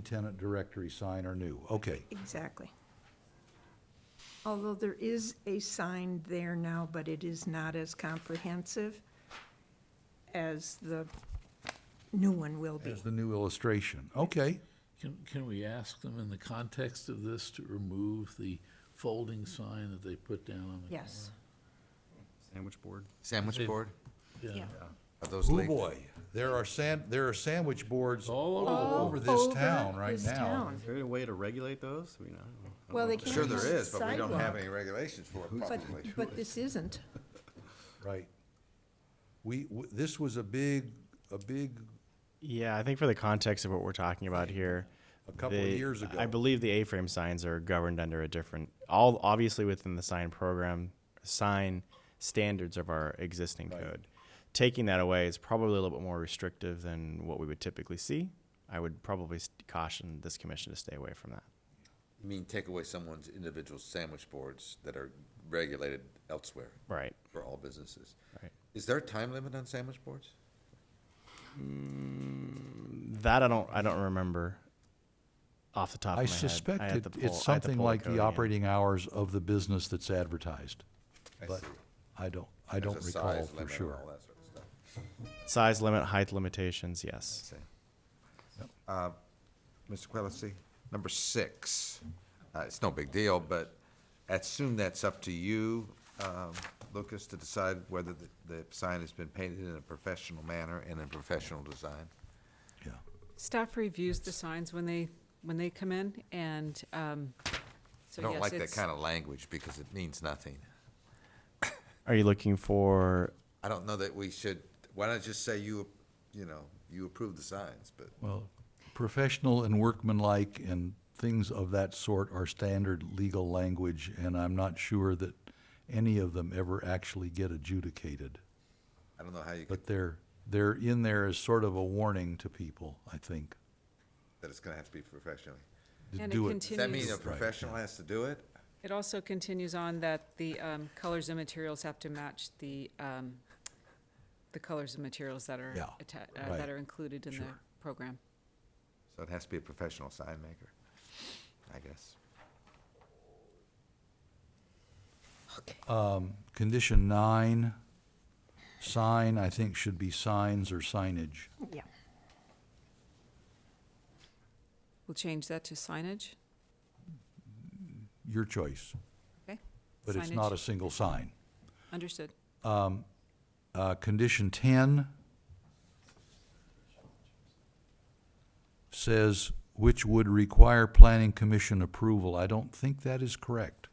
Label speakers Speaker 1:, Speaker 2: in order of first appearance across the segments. Speaker 1: tenant directory sign are new. Okay,
Speaker 2: Exactly. Although there is a sign there now, but it is not as comprehensive as the new one will be.
Speaker 1: as the new illustration. Okay,
Speaker 3: Can, can we ask them in the context of this to remove the folding sign that they put down on the?
Speaker 2: Yes,
Speaker 4: Sandwich board.
Speaker 5: Sandwich
Speaker 3: They've-
Speaker 5: board?
Speaker 3: Yeah,
Speaker 2: yeah.
Speaker 5: Are those
Speaker 1: oh
Speaker 5: leaked?
Speaker 1: boy, there are san, there are sandwich boards
Speaker 3: all over,
Speaker 1: all over this town right
Speaker 2: this
Speaker 1: now.
Speaker 2: town.
Speaker 4: Is there a way to regulate those? I mean, I don't know. I don't
Speaker 2: Well,
Speaker 4: know
Speaker 2: they
Speaker 4: if
Speaker 2: can't
Speaker 5: Sure
Speaker 2: on
Speaker 5: there
Speaker 2: the
Speaker 5: is, but we don't
Speaker 2: sidewalk.
Speaker 5: have any regulations for it
Speaker 2: But,
Speaker 5: probably.
Speaker 2: but this isn't.
Speaker 1: Right. We, w- this was a big, a big,
Speaker 6: Yeah, I think for the context of what we're talking about here,
Speaker 1: A couple of
Speaker 6: the-
Speaker 1: years ago.
Speaker 6: I believe the A-frame signs are governed under a different, all obviously within the sign program, sign standards of our existing code. Taking that away is probably a little bit more restrictive than what we would typically see. I would probably s- caution this commission to stay away from that.
Speaker 5: You mean take away someone's individual sandwich boards that are regulated elsewhere
Speaker 6: Right.
Speaker 5: for all businesses?
Speaker 6: Right.
Speaker 5: Is there a time limit on sandwich boards?
Speaker 6: That I don't. I don't remember off the top
Speaker 1: I
Speaker 6: of my head.
Speaker 1: suspect
Speaker 6: had
Speaker 1: it-
Speaker 6: to pull- I had
Speaker 1: it's
Speaker 6: to
Speaker 1: something
Speaker 6: pull
Speaker 1: like
Speaker 6: code
Speaker 1: the
Speaker 6: again.
Speaker 1: operating hours of the business that's advertised.
Speaker 5: I
Speaker 1: But
Speaker 5: see.
Speaker 1: I don't, I don't
Speaker 5: There's a
Speaker 1: recall
Speaker 5: size
Speaker 1: for
Speaker 5: limit and
Speaker 1: sure.
Speaker 5: all that sort of stuff.
Speaker 6: size limit, height limitations. Yes.
Speaker 5: Same. Uh, Mr. Quillisi, number six, uh, it's no big deal, but I assume that's up to you, um, Lucas, to decide whether the, the sign has been painted in a professional manner and in professional design.
Speaker 1: Yeah.
Speaker 7: Staff reviews the signs when they, when they come in, and, um,
Speaker 5: I
Speaker 7: so
Speaker 5: don't
Speaker 7: yes,
Speaker 5: like that
Speaker 7: it's,
Speaker 5: kind of language because it means nothing.
Speaker 6: Are you looking for?
Speaker 5: I don't know that we should, why not just say you, you know, you approve the signs, but
Speaker 1: Well, professional and workmanlike and things of that sort are standard legal language, and I'm not sure that any of them ever actually get adjudicated.
Speaker 5: I don't know how you could,
Speaker 1: But they're, they're in there as sort of a warning to people, I think,
Speaker 5: that it's gonna have to be professionally.
Speaker 1: to
Speaker 7: And it
Speaker 1: do it.
Speaker 5: Does that mean
Speaker 7: Continues.
Speaker 5: a
Speaker 7: Right,
Speaker 5: professional has to do it?
Speaker 7: it also continues on that the, um, colors and materials have to match the, um, the colors and materials that are
Speaker 1: Yeah,
Speaker 7: atta- uh,
Speaker 1: right.
Speaker 7: that are included in the program.
Speaker 5: So it has to be a professional sign maker, I guess.
Speaker 1: Condition nine, sign, I think should be signs or signage.
Speaker 2: Yeah.
Speaker 7: We'll change that to signage,
Speaker 1: Your choice,
Speaker 7: okay?
Speaker 1: but it's not a
Speaker 7: Signage.
Speaker 1: single sign.
Speaker 7: Understood.
Speaker 1: Uh, condition ten says, which would require planning commission approval. I don't think that is correct.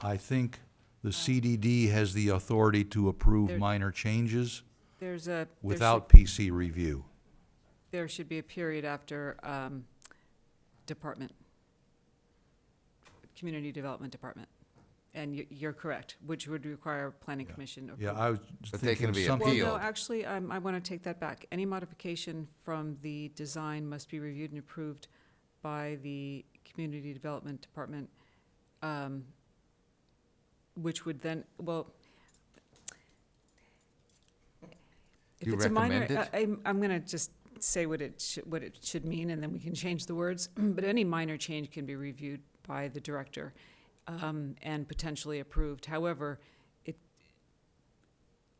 Speaker 1: I think the CDD has the authority to approve
Speaker 7: There-
Speaker 1: minor changes
Speaker 7: There's a. there should-
Speaker 1: without PC review.
Speaker 7: There should be a period after, um, department. Community Development Department. And you, you're correct, which would require planning commission approval.
Speaker 1: Yeah, I was
Speaker 5: But they can
Speaker 1: thinking
Speaker 5: be
Speaker 7: Well,
Speaker 1: something,
Speaker 5: appealed.
Speaker 7: no, actually, um, I want to take that back. Any modification from the design must be reviewed and approved by the Community Development Department, um, which would then, well, if
Speaker 5: You
Speaker 7: it's a minor,
Speaker 5: recommend it?
Speaker 7: I- I'm, I'm going to just say what it, sh- what it should mean, and then we can change the words. But any minor change can be reviewed by the director um, and potentially approved. However, it,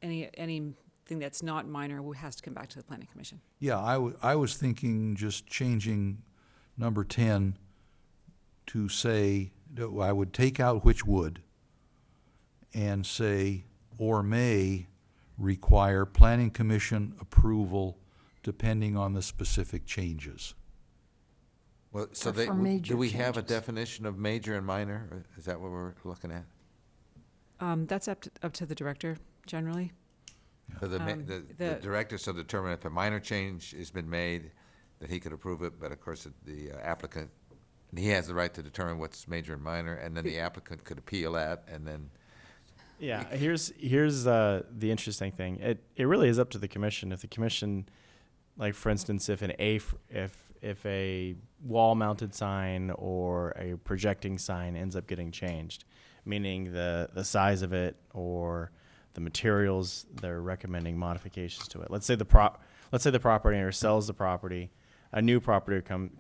Speaker 7: any, anything that's not minor wo- has to come back to the planning commission.
Speaker 1: yeah, I wa- I was thinking just changing number ten to say, no, I would take out which would and say, or may require planning commission approval depending on the specific changes.
Speaker 5: Well, so
Speaker 2: Or
Speaker 5: they,
Speaker 2: for
Speaker 5: w-
Speaker 2: major
Speaker 5: do we have a
Speaker 2: changes.
Speaker 5: definition of major and minor? Or Is that what we're looking at?
Speaker 7: Um, That's up to, up to the director generally.
Speaker 5: So the, ma-
Speaker 7: Um,
Speaker 5: the, the
Speaker 7: the-
Speaker 5: director shall determine if a minor change has been made, that he could approve it, but of course, it- the uh, applicant, he has the right to determine what's major and minor, and then the applicant could appeal that, and then,
Speaker 6: Yeah, here's here's uh, the interesting thing. It it really is up to the commission. If the commission, like for instance, if an a f- if if a wall mounted sign or a projecting sign ends up getting changed, meaning the the size of it or the materials they're recommending modifications to it. Let's say the prop let's say the property owner sells the property a new property come